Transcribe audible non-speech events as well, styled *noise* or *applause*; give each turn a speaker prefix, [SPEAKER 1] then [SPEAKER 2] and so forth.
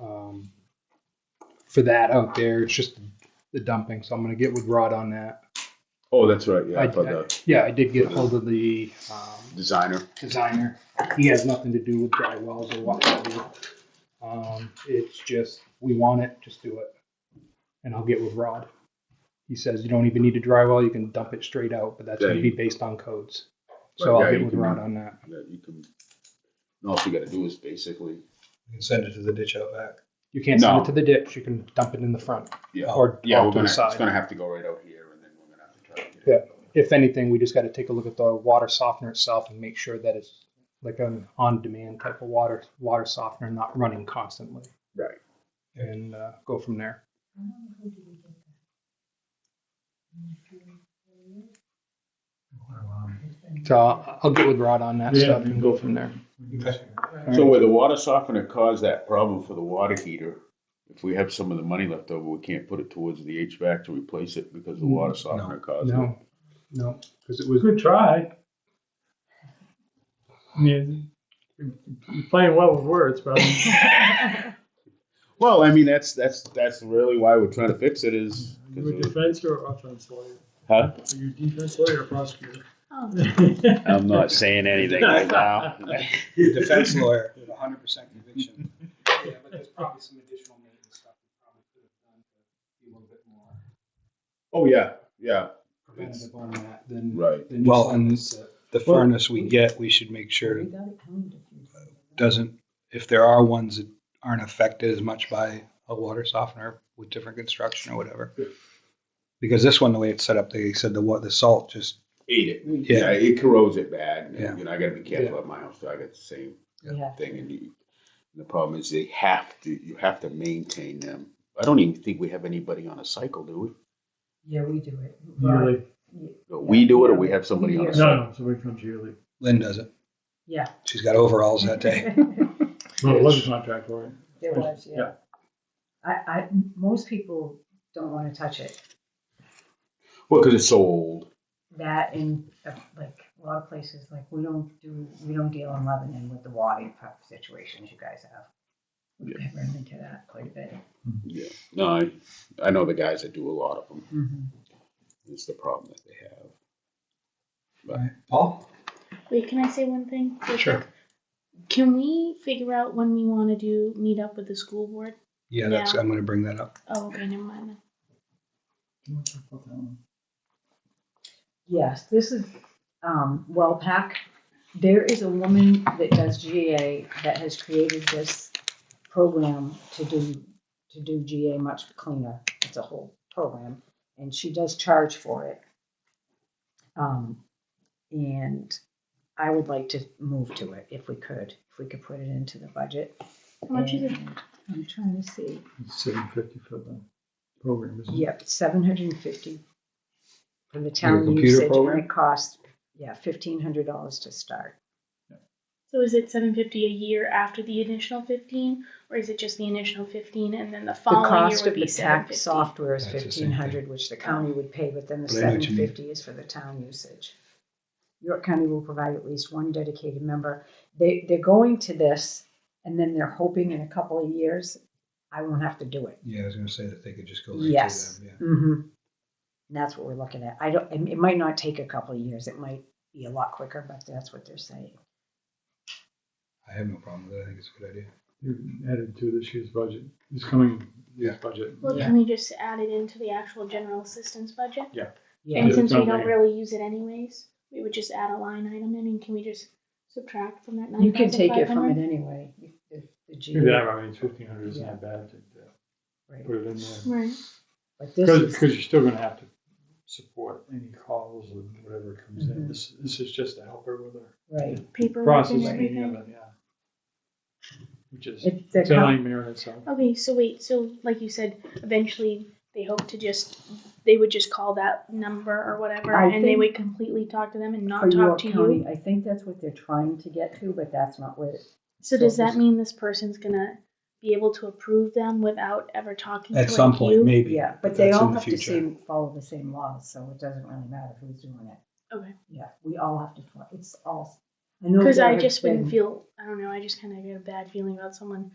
[SPEAKER 1] um, for that out there. It's just the dumping, so I'm gonna get with Rod on that.
[SPEAKER 2] Oh, that's right, yeah,
[SPEAKER 1] I-
[SPEAKER 2] for the
[SPEAKER 1] Yeah, I did get
[SPEAKER 2] For the-
[SPEAKER 1] hold of the um,
[SPEAKER 2] designer.
[SPEAKER 1] designer. He has nothing to do with dry wells or what have you. Um, it's just we want it, just do it, and I'll get with Rod. He says you don't even need a dry well; you can dump it straight out, but that's
[SPEAKER 2] Yeah,
[SPEAKER 1] gonna
[SPEAKER 2] you-
[SPEAKER 1] be based on codes. So
[SPEAKER 2] Right,
[SPEAKER 1] I'll
[SPEAKER 2] yeah,
[SPEAKER 1] get
[SPEAKER 2] you
[SPEAKER 1] with
[SPEAKER 2] can-
[SPEAKER 1] Rod on that.
[SPEAKER 2] that you can, and all you gotta do is basically,
[SPEAKER 3] You can send it to the ditch out back.
[SPEAKER 1] You can't send
[SPEAKER 2] No.
[SPEAKER 1] it to the ditch. You can dump it in the front.
[SPEAKER 2] yeah,
[SPEAKER 1] Or
[SPEAKER 2] yeah,
[SPEAKER 1] off
[SPEAKER 2] we're
[SPEAKER 1] to the
[SPEAKER 2] gonna, it's
[SPEAKER 1] side.
[SPEAKER 2] gonna have to go right out here, and then we're gonna have to try to get
[SPEAKER 1] Yeah.
[SPEAKER 2] it.
[SPEAKER 1] If anything, we just got to take a look at the water softener itself and make sure that it's like an on-demand type of water water softener, not running constantly.
[SPEAKER 2] Right.
[SPEAKER 1] And uh, go from there. So I'll I'll get with Rod on that
[SPEAKER 4] Yeah,
[SPEAKER 1] stuff
[SPEAKER 4] we
[SPEAKER 1] and
[SPEAKER 4] can
[SPEAKER 1] go
[SPEAKER 4] go
[SPEAKER 1] from there.
[SPEAKER 2] So where the water softener caused that problem for the water heater, if we have some of the money left over, we can't put it towards the HVAC to replace it because the water softener caused it.
[SPEAKER 1] Mm, No, no, because it was
[SPEAKER 4] Good try. I mean, You're playing well with words, but
[SPEAKER 2] Well, I mean, that's, that's, that's really why we're trying to fix it is,
[SPEAKER 4] you're a
[SPEAKER 2] 'cause of-
[SPEAKER 4] defense or offense lawyer?
[SPEAKER 2] huh?
[SPEAKER 4] Are you a defense lawyer or prosecutor? *laughs*
[SPEAKER 2] I'm not saying anything right now.
[SPEAKER 5] *laughs*
[SPEAKER 3] Defense lawyer, hundred percent conviction.
[SPEAKER 1] Yeah, but there's probably some additional maintenance stuff we probably could have done to be a little bit more
[SPEAKER 2] *laughs* Oh, yeah, yeah,
[SPEAKER 1] preventative on that than.
[SPEAKER 2] right.
[SPEAKER 1] than
[SPEAKER 3] Well,
[SPEAKER 1] just
[SPEAKER 3] and-
[SPEAKER 1] letting it sit.
[SPEAKER 3] The
[SPEAKER 4] Well-
[SPEAKER 3] furnace we get, we should make sure doesn't, if there are ones that aren't affected as much by a water softener with different construction or whatever. Because this one, the way it's set up, they said the what, the salt just,
[SPEAKER 2] Ate it. Yeah,
[SPEAKER 3] Yeah.
[SPEAKER 2] it corrodes it bad. and,
[SPEAKER 3] Yeah.
[SPEAKER 2] You know, I gotta be
[SPEAKER 1] Yeah.
[SPEAKER 2] careful at my house, so I got the same
[SPEAKER 5] Yeah.
[SPEAKER 2] thing. And you- and the problem is they have to, you have to maintain them. I don't even think we have anybody on a cycle, do we?
[SPEAKER 5] Yeah, we do it.
[SPEAKER 4] Yearly.
[SPEAKER 2] No, We do it or we have somebody on
[SPEAKER 5] Yeah.
[SPEAKER 2] a
[SPEAKER 4] No,
[SPEAKER 2] cycle?
[SPEAKER 4] no, somebody comes yearly.
[SPEAKER 3] Lynn does it. *laughs*
[SPEAKER 5] Yeah.
[SPEAKER 3] She's got overalls that
[SPEAKER 5] *laughs*
[SPEAKER 3] day.
[SPEAKER 4] Well, it was a contract lawyer.
[SPEAKER 5] There was, yeah.
[SPEAKER 4] Yeah.
[SPEAKER 5] I, I, most people don't wanna touch it.
[SPEAKER 2] Well, because it's so old.
[SPEAKER 5] That and uh, like a lot of places, like we don't do, we don't deal in Lebanon with the water type situations you guys have. We've run into that quite a bit.
[SPEAKER 2] Yeah. No, I, I know the guys that do a lot of them. It's the problem that they have.
[SPEAKER 3] Paul?
[SPEAKER 6] Wait, can I say one thing? real
[SPEAKER 3] Sure.
[SPEAKER 6] quick? Can we figure out when we want to do meet up with the school board?
[SPEAKER 3] Yeah, that's,
[SPEAKER 6] Yeah.
[SPEAKER 3] I'm gonna bring that up.
[SPEAKER 6] Oh, okay, never mind. then.
[SPEAKER 5] Yes, this is, um, WellPAC. There is a woman that does GA that has created this program to do, to do GA much cleaner. It's a whole program and she does charge for it. Um, and I would like to move to it if we could, if we could put it into the budget.
[SPEAKER 6] How much is it?
[SPEAKER 5] And I'm trying to see.
[SPEAKER 4] Seven fifty for the program, isn't it?
[SPEAKER 5] Yep, seven hundred and fifty for the
[SPEAKER 3] the
[SPEAKER 5] town
[SPEAKER 3] computer
[SPEAKER 5] usage, and
[SPEAKER 3] program?
[SPEAKER 5] it costs, yeah, fifteen hundred dollars to start.
[SPEAKER 6] So is it seven fifty a year after the initial fifteen, or is it just the initial fifteen and then the
[SPEAKER 5] The
[SPEAKER 6] following year
[SPEAKER 5] cost
[SPEAKER 6] would
[SPEAKER 5] of
[SPEAKER 6] be
[SPEAKER 5] the
[SPEAKER 6] seven
[SPEAKER 5] tax
[SPEAKER 6] fifty?
[SPEAKER 5] software is
[SPEAKER 3] That's the
[SPEAKER 5] fifteen
[SPEAKER 3] same
[SPEAKER 5] hundred, which the county would pay, but then the
[SPEAKER 3] But I know
[SPEAKER 5] seven
[SPEAKER 3] what you mean.
[SPEAKER 5] fifty is for the town usage. York County will provide at least one dedicated member. They, they're going to this, and then they're hoping in a couple of years, I won't have to do it.
[SPEAKER 3] Yeah, I was gonna say that they could just go right to them,
[SPEAKER 5] Yes.
[SPEAKER 3] yeah.
[SPEAKER 5] Mm-hmm. And that's what we're looking at. I don't, and it might not take a couple of years. It might be a lot quicker, but that's what they're saying.
[SPEAKER 3] I have no problem with it. I think it's a good idea.
[SPEAKER 4] You added to this year's budget, this coming year's budget.
[SPEAKER 6] Well, can we just add it into the actual general assistance budget?
[SPEAKER 5] Yeah,
[SPEAKER 6] And
[SPEAKER 4] Yeah,
[SPEAKER 6] since we
[SPEAKER 4] sounds
[SPEAKER 6] don't
[SPEAKER 4] like-
[SPEAKER 6] really use it anyways, we would just add a line item in, and can we just subtract from that nine
[SPEAKER 5] you can
[SPEAKER 6] thousand
[SPEAKER 5] take
[SPEAKER 6] five
[SPEAKER 5] it from it
[SPEAKER 6] hundred?
[SPEAKER 5] anyway. You- The, the G,
[SPEAKER 4] Maybe that, I mean, fifteen hundred isn't
[SPEAKER 5] Yeah.
[SPEAKER 4] that bad to uh,
[SPEAKER 5] right.
[SPEAKER 4] put it in there.
[SPEAKER 6] Right,
[SPEAKER 5] But this
[SPEAKER 4] Because,
[SPEAKER 5] is,
[SPEAKER 4] because you're still gonna have to support any calls and whatever comes in.
[SPEAKER 5] Mhm.
[SPEAKER 4] This, this is just to help her with her
[SPEAKER 5] right.
[SPEAKER 6] paperwork and
[SPEAKER 4] processing
[SPEAKER 6] everything.
[SPEAKER 4] of it, yeah. Which is,
[SPEAKER 5] It's the
[SPEAKER 4] it's a
[SPEAKER 5] county,
[SPEAKER 4] nightmare in itself.
[SPEAKER 6] Okay, so wait, so like you said, eventually they hope to just, they would just call that number or whatever,
[SPEAKER 5] I
[SPEAKER 6] and they
[SPEAKER 5] think-
[SPEAKER 6] would completely talk to them and
[SPEAKER 5] for
[SPEAKER 6] not talk
[SPEAKER 5] York
[SPEAKER 6] to
[SPEAKER 5] County,
[SPEAKER 6] you.
[SPEAKER 5] I think that's what they're trying to get to, but that's not what it,
[SPEAKER 6] So does
[SPEAKER 5] So
[SPEAKER 6] that
[SPEAKER 5] this-
[SPEAKER 6] mean this person's gonna be able to approve them without ever talking to like
[SPEAKER 3] At
[SPEAKER 6] you?
[SPEAKER 3] some point, maybe.
[SPEAKER 5] yeah,
[SPEAKER 3] but
[SPEAKER 5] but they
[SPEAKER 3] that's in
[SPEAKER 5] all
[SPEAKER 3] the
[SPEAKER 5] have to
[SPEAKER 3] future.
[SPEAKER 5] same, follow the same laws, so it doesn't really matter who's doing it.
[SPEAKER 6] Okay.
[SPEAKER 5] Yeah, we all have to, fo- it's all, I know
[SPEAKER 6] Cause
[SPEAKER 5] there
[SPEAKER 6] I
[SPEAKER 5] have
[SPEAKER 6] just
[SPEAKER 5] been-
[SPEAKER 6] wouldn't feel, I don't know, I just kinda get a bad feeling about someone